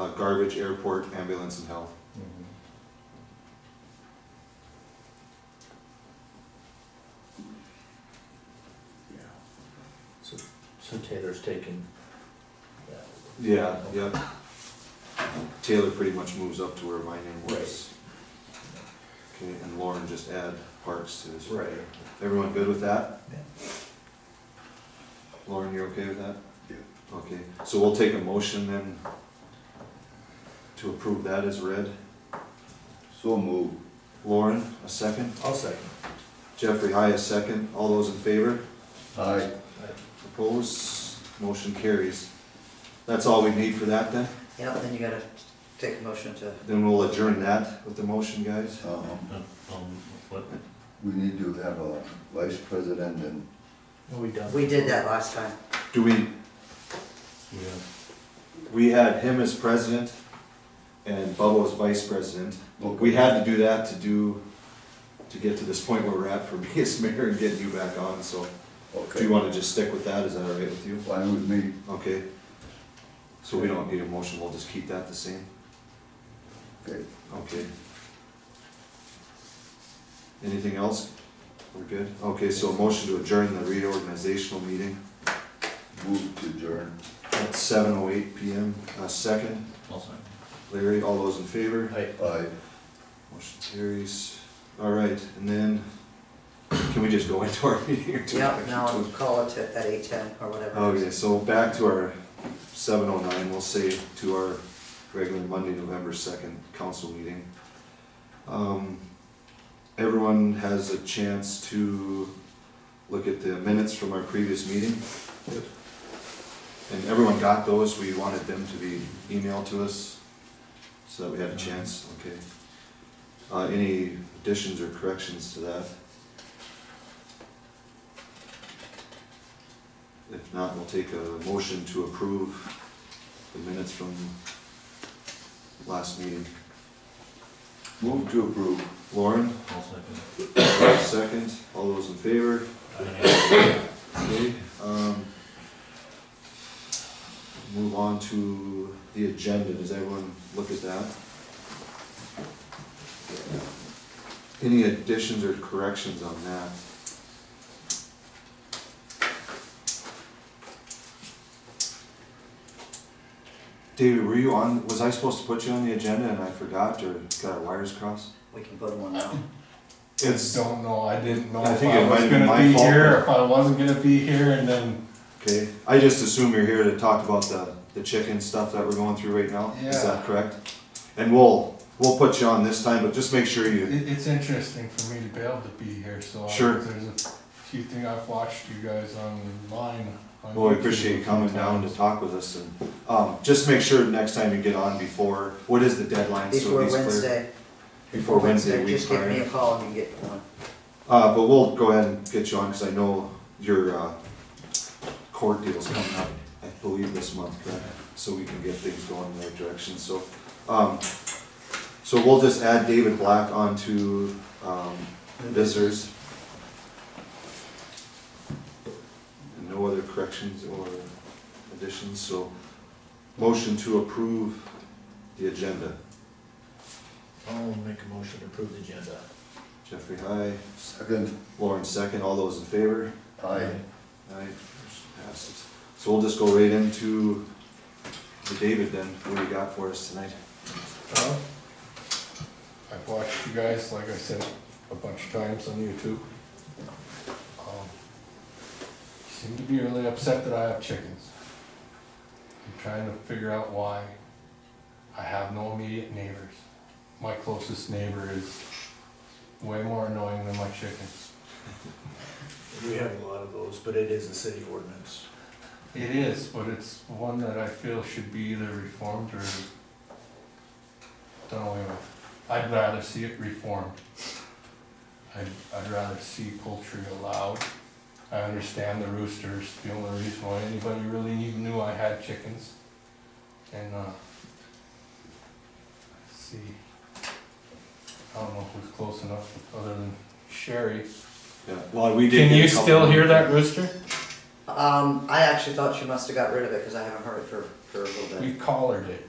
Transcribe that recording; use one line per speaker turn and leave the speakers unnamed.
Uh, garbage, airport, ambulance, and health.
Mhm.
Yeah.
So, so Taylor's taking that.
Yeah, yep. Taylor pretty much moves up to where my name was. Okay, and Lauren just add parks to his.
Right.
Everyone good with that?
Yeah.
Lauren, you're okay with that?
Yeah.
Okay, so we'll take a motion then to approve that as read.
So moved.
Lauren, a second.
I'll second.
Jeffrey, aye, a second. All those in favor?
Aye.
Opposed? Motion carries. That's all we need for that then?
Yeah, then you gotta take a motion to,
Then we'll adjourn that with the motion, guys.
Um,
Um, what,
we need to have a vice president and
Are we done?
we did that last time.
Do we,
we have
we had him as president and Bubba as vice president. We had to do that to do, to get to this point where we're at for me as mayor and getting you back on, so. Do
Okay.
you wanna just stick with that? Is that all right with you?
Fine with me.
Okay. So we don't need a motion, we'll just keep that the same?
Okay.
Okay. Anything else? We're good? Okay, so a motion to adjourn the reorganizational meeting
Move to adjourn.
at seven oh eight PM. Uh, second,
also?
Larry, all those in favor?
Aye.
Aye.
Motion carries. All right, and then, can we just go into our meeting or do we
Yeah,
have to
now
do-
call it to, at eight ten or whatever. it is.
Okay, so back to our seven oh nine, we'll say to our regular Monday, November second council meeting. Um, Everyone has a chance to look at the minutes from our previous meeting. And everyone got those, we wanted them to be emailed to us, so that we
Uh-huh.
had a chance, okay. Uh, any additions or corrections to that? If not, we'll take a motion to approve the minutes from last meeting.
Move to approve.
Lauren,
I'll second.
second, all those in favor? Okay, um, move on to the agenda, does everyone look at that? Any additions or corrections on that? David, were you on, was I supposed to put you on the agenda and I forgot or got our wires crossed?
We can put one now.
It's,
Don't know, I didn't know
I
if
think it
I
might
was
have been
gonna
my
be
fault.
here, if I wasn't gonna be here, and then,
okay, I just assume you're here to talk about the, the chicken stuff that we're going through right now, is that
Yeah.
correct? And we'll, we'll put you on this time, but just make sure you
it, it's interesting for me to be able to be here, so. I-
Sure.
There's a few things I've watched you guys online. on
Well, we
YouTube
oh, appreciate
a
you
few
coming down to
times.
talk with us and, um, just make sure next time you get on before, what is the deadline? so
Before
he's clear?
Wednesday.
Before Wednesday,
Just
week
give me
prior.
a call and you get one.
Uh, but we'll go ahead and get you on, cause I know your, uh, court deal's coming up, I believe this month, correct? So we can get things going in the right direction, so, um, so we'll just add David Black onto, um, visitors. And no other corrections or additions, so motion to approve the agenda.
I'll make a motion to approve the agenda.
Jeffrey, aye.
Second.
Lauren, second. All those in favor?
Aye.
Aye, motion passes. So we'll just go right into the David then, what do you got for us tonight?
Huh? I've watched you guys, like I said, a bunch of times on YouTube. Um, Seem to be really upset that I have chickens. I'm trying to figure out why. I have no immediate neighbors. My closest neighbor is way more annoying than my chickens.
We have a lot of those, but it is a city ordinance.
It is, but it's one that I feel should be either reformed or done away with. I'd rather see it reformed. I'd, I'd rather see poultry allowed. I understand the roosters, the only reason why anybody really even knew I had chickens. And, uh, let's see, I don't know who's close enough, other than Sherry.
Yeah, well, we did.
Can
get a
you
couple-
still hear that rooster?
Um, I actually thought you must have got rid of it, cause I haven't heard it for, for a little
We
bit.
collared it.